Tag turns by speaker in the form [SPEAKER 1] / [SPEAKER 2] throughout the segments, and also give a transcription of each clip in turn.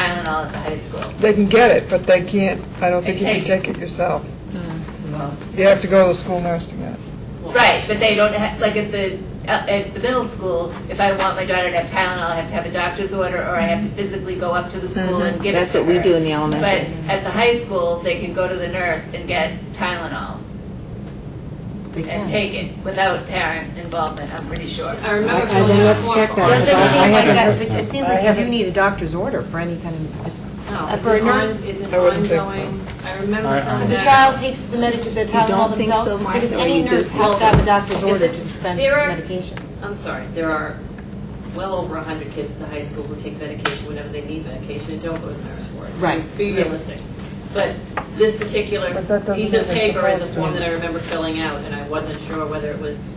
[SPEAKER 1] now at the high school.
[SPEAKER 2] They can get it, but they can't, I don't think you can
[SPEAKER 1] And take
[SPEAKER 2] take it yourself.
[SPEAKER 3] Hmm.
[SPEAKER 2] You have to go to the school nurse to get it.
[SPEAKER 1] Right, but they don't have, like at the, uh, at the middle school, if I want my daughter to have Tylenol, I have to have a doctor's order, or I have to physically go up to the school and give it
[SPEAKER 4] Mm-hmm.
[SPEAKER 1] to her.
[SPEAKER 4] That's what we do in the
[SPEAKER 1] But
[SPEAKER 4] elementary.
[SPEAKER 1] at the high school, they can go to the nurse and get Tylenol
[SPEAKER 4] They
[SPEAKER 1] and
[SPEAKER 4] can.
[SPEAKER 1] take it without parent involvement, I'm pretty sure.
[SPEAKER 3] I remember.
[SPEAKER 4] Okay, then let's
[SPEAKER 3] filling out
[SPEAKER 4] check
[SPEAKER 3] a
[SPEAKER 4] that.
[SPEAKER 3] form.
[SPEAKER 4] Well,
[SPEAKER 5] Well,
[SPEAKER 4] I
[SPEAKER 5] it doesn't seem like
[SPEAKER 4] haven't
[SPEAKER 5] that,
[SPEAKER 4] heard
[SPEAKER 5] but
[SPEAKER 4] that.
[SPEAKER 5] it seems
[SPEAKER 2] I
[SPEAKER 5] like you do
[SPEAKER 2] haven't-
[SPEAKER 5] need a doctor's order for any kind of, just,
[SPEAKER 4] Oh.
[SPEAKER 3] No,
[SPEAKER 5] Uh,
[SPEAKER 3] it's
[SPEAKER 5] for a
[SPEAKER 3] an
[SPEAKER 5] nurse?
[SPEAKER 3] on- It's an
[SPEAKER 2] I wouldn't think
[SPEAKER 3] ongoing, I
[SPEAKER 6] I-
[SPEAKER 3] remember.
[SPEAKER 6] I-
[SPEAKER 7] So the
[SPEAKER 3] filling that out.
[SPEAKER 7] child takes the medic, the
[SPEAKER 4] don't
[SPEAKER 7] Tylenol
[SPEAKER 4] think so,
[SPEAKER 7] themselves?
[SPEAKER 4] Martha,
[SPEAKER 7] Because
[SPEAKER 4] or
[SPEAKER 7] any
[SPEAKER 4] you do
[SPEAKER 7] nurse has to
[SPEAKER 4] something?
[SPEAKER 7] have a doctor's order to dispense
[SPEAKER 3] There are-
[SPEAKER 7] medication.
[SPEAKER 3] I'm sorry, there are well over 100 kids at the high school who take medication whenever they need medication and don't go to the nurse for it.
[SPEAKER 5] Right.
[SPEAKER 3] Be realistic. But this particular
[SPEAKER 2] But that doesn't
[SPEAKER 3] piece of
[SPEAKER 2] mean they're
[SPEAKER 3] paper is a
[SPEAKER 2] supposed to.
[SPEAKER 3] form that I remember filling out, and I wasn't sure whether it was,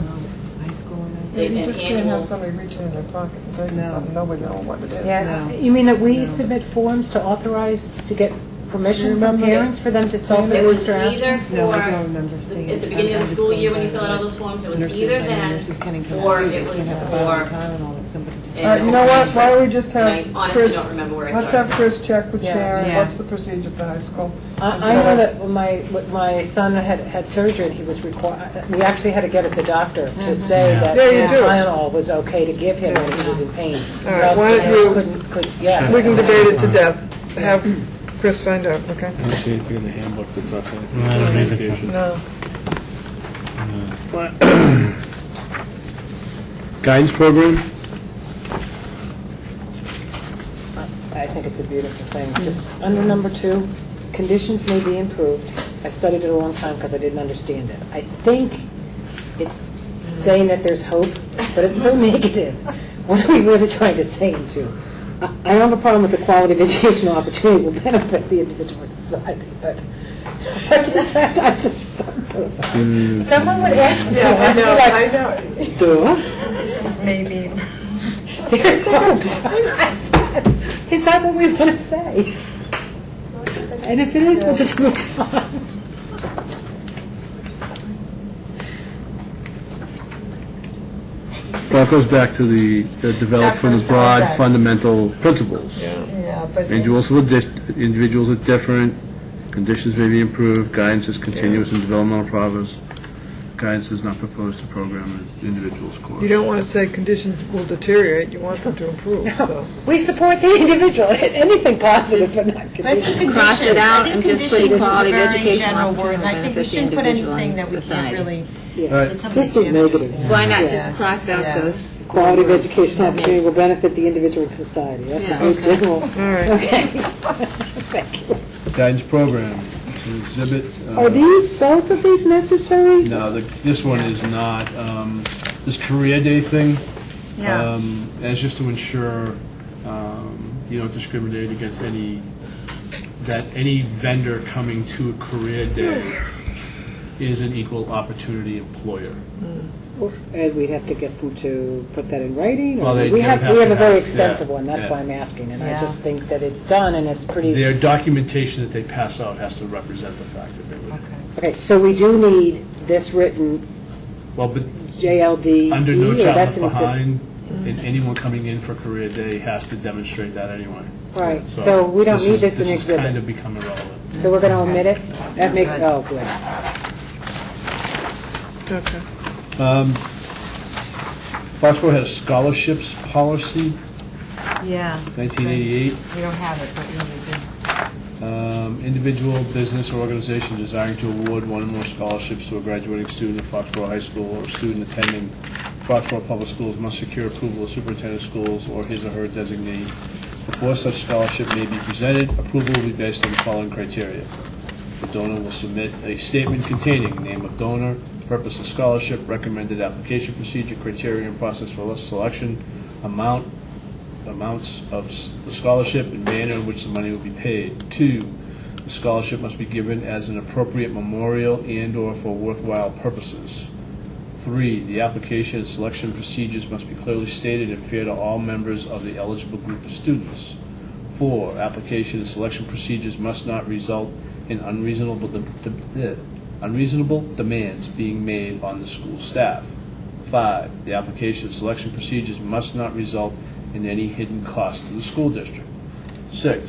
[SPEAKER 5] um, high school or not.
[SPEAKER 3] they
[SPEAKER 2] You
[SPEAKER 3] had
[SPEAKER 2] just can't have
[SPEAKER 3] annual.
[SPEAKER 2] somebody reaching in their pocket and taking
[SPEAKER 5] No.
[SPEAKER 2] something, nobody knows what it is.
[SPEAKER 5] Yeah.
[SPEAKER 8] Yeah, you mean that
[SPEAKER 5] No.
[SPEAKER 8] we submit forms to authorize, to get permission from
[SPEAKER 5] Remember that-
[SPEAKER 8] parents for them to
[SPEAKER 3] It was
[SPEAKER 8] self-administer
[SPEAKER 3] either
[SPEAKER 8] aspirin?
[SPEAKER 3] for.
[SPEAKER 5] No, I don't remember seeing
[SPEAKER 3] At
[SPEAKER 5] it.
[SPEAKER 3] the beginning of
[SPEAKER 5] I'm- I'm
[SPEAKER 3] the
[SPEAKER 5] just
[SPEAKER 3] school
[SPEAKER 5] going
[SPEAKER 3] year, when
[SPEAKER 5] by
[SPEAKER 3] you fill out all
[SPEAKER 5] what
[SPEAKER 3] those forms, it was
[SPEAKER 5] Nurses,
[SPEAKER 3] either
[SPEAKER 5] I mean, nurses
[SPEAKER 3] that,
[SPEAKER 5] can come
[SPEAKER 3] or
[SPEAKER 5] out,
[SPEAKER 3] it
[SPEAKER 5] they can't
[SPEAKER 3] was
[SPEAKER 5] have a
[SPEAKER 3] for-
[SPEAKER 5] bottle of Tylenol that somebody just.
[SPEAKER 2] All right, you know what, why don't we just
[SPEAKER 3] and
[SPEAKER 2] have
[SPEAKER 3] I honestly
[SPEAKER 2] Chris,
[SPEAKER 3] don't remember where I
[SPEAKER 2] let's have
[SPEAKER 3] started.
[SPEAKER 2] Chris check with
[SPEAKER 5] Yeah.
[SPEAKER 2] Sharon,
[SPEAKER 5] Yeah.
[SPEAKER 2] what's the procedure at the high school?
[SPEAKER 8] I I know that when my, when my son had, had surgery, he was required, we actually had to get at the doctor to say that
[SPEAKER 2] Yeah, you do.
[SPEAKER 8] Tylenol was okay to give him when he was in pain.
[SPEAKER 2] All right, why don't you-
[SPEAKER 8] Couldn't, could, yeah.
[SPEAKER 2] We can debate it to death, have Chris find out, okay?
[SPEAKER 6] I don't see anything in the handbook that talks anything.
[SPEAKER 9] No, I don't either.
[SPEAKER 6] Education.
[SPEAKER 2] No.
[SPEAKER 6] Guidance program?
[SPEAKER 8] I think it's a beautiful thing. Just under number two, conditions may be improved. I studied it a long time because I didn't understand it. I think it's saying that there's hope, but it's so negative. What are we really trying to say it to? I I don't have a problem with the quality of educational opportunity will benefit the individual and society, but I just, I'm so sorry. Someone would ask me, I'd be like,
[SPEAKER 2] I know.
[SPEAKER 8] Duh. Conditions Is that what we want to say? And if it is, we'll just move on.
[SPEAKER 9] Well, it goes back to the the develop from the broad fundamental principles.
[SPEAKER 2] Yeah, but
[SPEAKER 9] Individuals are di- individuals are different, conditions may be improved, guidance is continuous and developmental progress. Guidance is not proposed to program an individual's course.
[SPEAKER 2] you don't want to say conditions will deteriorate, you want them to improve, so.
[SPEAKER 8] We support the individual, anything positive, but not conditions.
[SPEAKER 4] Cross it out and just put
[SPEAKER 5] conditions is a
[SPEAKER 4] quality of
[SPEAKER 5] very
[SPEAKER 4] education
[SPEAKER 5] general
[SPEAKER 4] on
[SPEAKER 5] word,
[SPEAKER 4] to
[SPEAKER 5] and I think we
[SPEAKER 4] benefit the
[SPEAKER 5] shouldn't put
[SPEAKER 4] individual
[SPEAKER 5] anything
[SPEAKER 4] and
[SPEAKER 5] that we can't
[SPEAKER 4] society.
[SPEAKER 8] Just a negative.
[SPEAKER 4] Why not
[SPEAKER 8] Yeah.
[SPEAKER 4] just cross out
[SPEAKER 2] Yeah.
[SPEAKER 4] those?
[SPEAKER 8] Quality of
[SPEAKER 4] words?
[SPEAKER 8] educational opportunity will benefit the individual and society. That's a
[SPEAKER 4] Yeah.
[SPEAKER 8] good general,
[SPEAKER 2] All right.
[SPEAKER 8] okay. Thank you.
[SPEAKER 9] Guidance program, to exhibit. uh,
[SPEAKER 8] Are these, both of these necessary?
[SPEAKER 9] No, the- this one is not. Um, This career day thing, um, that's just to ensure um, you don't discriminate against any, that any vendor coming to a career day is an equal opportunity employer.
[SPEAKER 8] And we'd have to get them to put that in writing? or-
[SPEAKER 9] Well, they- they
[SPEAKER 8] We have,
[SPEAKER 9] would have
[SPEAKER 8] we have
[SPEAKER 9] to
[SPEAKER 8] a very
[SPEAKER 9] have-
[SPEAKER 8] extensive
[SPEAKER 9] yeah,
[SPEAKER 8] one, that's
[SPEAKER 9] yeah.
[SPEAKER 8] why I'm asking, and I
[SPEAKER 2] Yeah.
[SPEAKER 8] just think that it's done, and it's pretty,
[SPEAKER 9] Their documentation that they pass out has to represent the fact that they were,
[SPEAKER 8] okay, so we do need this written
[SPEAKER 9] well, but
[SPEAKER 8] JLD.
[SPEAKER 9] under no
[SPEAKER 8] E or
[SPEAKER 9] child
[SPEAKER 8] that's
[SPEAKER 9] left
[SPEAKER 8] an exi-
[SPEAKER 9] behind, and anyone coming in for career day has to demonstrate that anyway.
[SPEAKER 8] Right, so we don't need
[SPEAKER 9] is-
[SPEAKER 8] this in
[SPEAKER 9] This has kind
[SPEAKER 8] exhibit,
[SPEAKER 9] of become irrelevant.
[SPEAKER 8] so we're going to omit it? That make, oh, good.
[SPEAKER 2] Okay.
[SPEAKER 9] Um, Foxborough had a scholarships policy,
[SPEAKER 5] Yeah,
[SPEAKER 9] 1988.
[SPEAKER 5] we don't have it, but we need to.
[SPEAKER 9] Um, Individual, business, or organization desiring to award one or more scholarships to a graduating student of Foxborough High School or student attending Foxborough Public Schools must secure approval of superintendent of schools or his or her designee. Before such scholarship may be presented, approval will be based on the following criteria. The donor will submit a statement containing name of donor, purpose of scholarship, recommended application procedure, criteria and process for selection, amount, amounts of s- the scholarship and manner in which the money will be paid. Two, the scholarship must be given as an appropriate memorial and/or for worthwhile purposes. Three, the application and selection procedures must be clearly stated and fair to all members of the eligible group of students. Four, application and selection procedures must not result in unreasonable, de- de- eh, unreasonable demands being made on the school staff. Five, the application and selection procedures must not result in any hidden cost to the school district. Six,